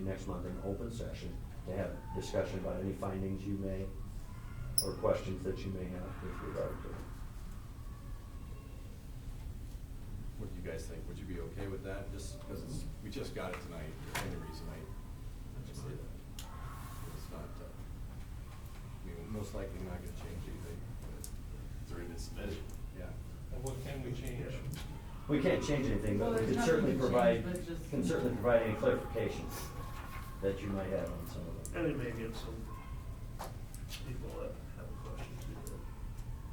next month in open session to have discussion about any findings you may, or questions that you may have with regard to. it. What do you guys think? Would you be okay with that? Just because it's, we just got it tonight, there's any reason I, I just say that. It's not, uh, I mean, we're most likely not gonna change anything, but, Three minutes a minute. yeah. And what can we change? We can't change anything, Well, but we there's can certainly nothing to provide, change, but just- can certainly provide any clarification that you might have on some of And them. it may give some people that have a question too, that,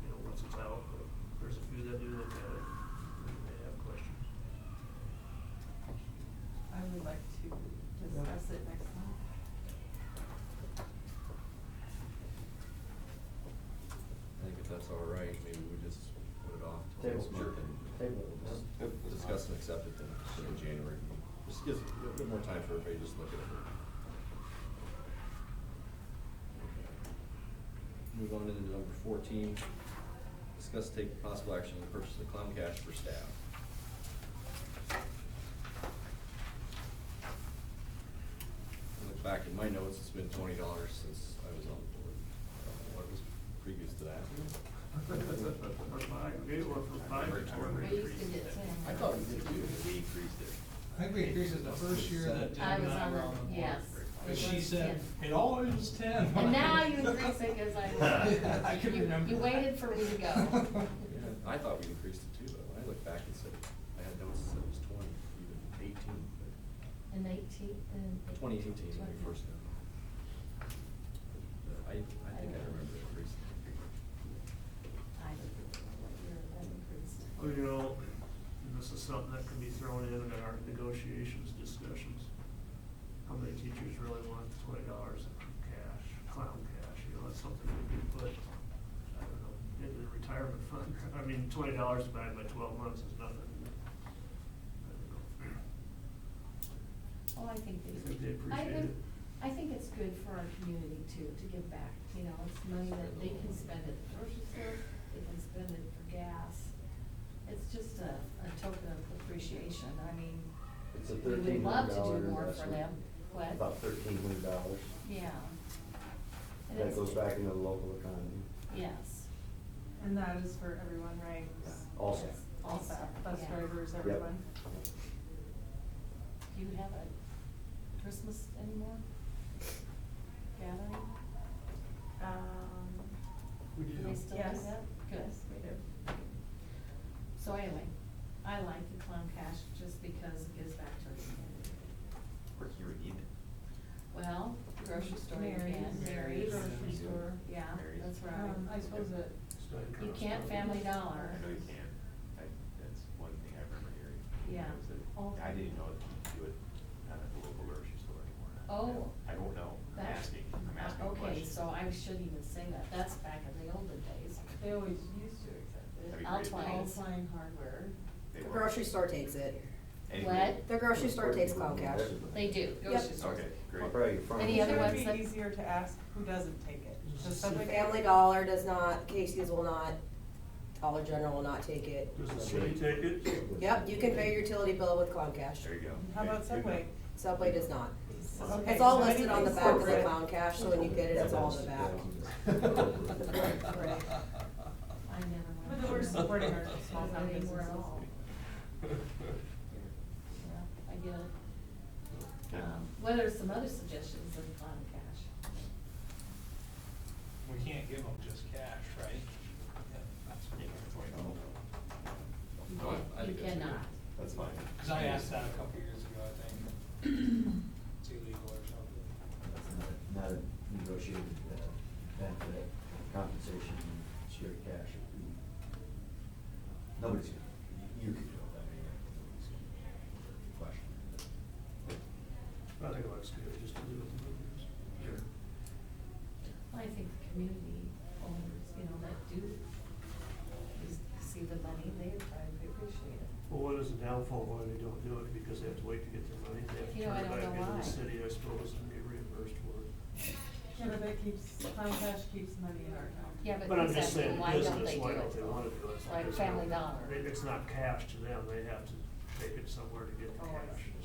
you know, once it's out, but there's a few that do look at it, and they have questions. I would like to discuss it next month. I think if that's all right, maybe we just put it off till Table, next month sure. and. Table it, just yeah. Discuss and accept it then in January. Just gives a little bit more time for everybody to just look at it. Move on into number fourteen, discuss take possible action to purchase the clown cash for staff. I Look back in my notes, it's been twenty dollars since I was on the board. I don't know What was previous to that? Or five, maybe one from five to I twenty. used to get ten. I thought we did too. We increased it. I think we increased it the first year that Deb I and was I on were the, on the board. yes. But it she was said, 10. it always was ten. And now you increase it as Yeah, I I can You- remember. You waited for me to go. Yeah, I thought we increased it too, though. When I look back and said, I had notes that said it was twenty, even eighteen, but And eighteen, and. twenty eighteen when we first got it. But I, I think I remember it increasing. I don't know what year that increased. Well, Oh, you know, and this is something that can be thrown in in our negotiations discussions. How many teachers really want twenty dollars in cash, clown cash, you know, that's something we could put, I don't know, into the retirement fund. I mean, twenty dollars divided by twelve months is nothing. I don't know. Oh, I think they. I think they I appreciate think- it. I think it's good for our community too, to give back, you know, it's money that they can spend at the grocery store, they can spend it for gas. It's just a, a token of appreciation, I mean, It's a we would thirteen love hundred to dollar do more for investment. them, what? About thirteen hundred dollars. Yeah. And That it's- goes back into the local economy. Yes. And that is for everyone, right? Yeah, All staff. All Also, staff, bus yeah. drivers, Yep. everyone. Do you have a Christmas anymore? Gathering? Um, We Do they still do Yes. that? Good. yes, we do. So anyway, I like the clown cash just because it gives back to our community. Or here in Enid. Well, grocery store you Mary's. can, Mary's. Grocery store. Yeah, Mary's. that's right. Um, I suppose that, It's not You gonna can't stop. family I dollar. know you can. I, that's one thing I remember hearing. Yeah. was that Oh. I didn't know that you could do it uh, at the local grocery store anymore. Oh. I don't know. I'm That's- asking, I'm asking a Okay, question. so I shouldn't even say that. That's back in the olden days. they always used to accept it. That'd be great if they Alpine, did. Alpine Hardware. They The were. grocery store takes it. Anyway, What? The grocery store takes clown cash. They do, Yep. grocery stores. Okay, great. Right, in front of Any you. other ones It would that- be easier to ask who doesn't take it. Does somebody- Family Dollar does not, Casey's will not, Dollar General will not take it. Does the city take it? Yep, you can pay your utility bill with clown cash. There you go. How Okay, about good Subway? enough. Subway does not. Okay, It's all so listed on the anything's back of the corporate. clown cash, so when you get it, it's all in the back. I never went. But then we're supporting our small town Not anymore at businesses. all. Yeah, I get it. Yeah. Um, What are some other suggestions of clown cash? We can't give them just cash, right? No, Oh, I- I You think that's okay. cannot. That's fine. Cause I asked that a couple years ago, I think. It's illegal or something. That's not- Not a negotiated uh, benefit, compensation, straight cash. Nobody's, gonna- you could do it, I mean, nobody's gonna question. I think it looks good, just to do it. with the numbers. I think the community owners, you know, that do just see the money, they probably appreciate it. Well, what is the downfall why they don't do it? Because they have to wait to get their money, they have to You turn know, I it don't back into know why. the city, I suppose, and get reimbursed for it. Yeah, but that keeps, clown cash keeps money in our town. Yeah, but But I'm just exactly, saying, why don't business, they do why don't they it? wanna do it? It's Like because they Family don't- Dollar. they- It's not cash to them, they have to take it somewhere to get the Oh, I cash. see.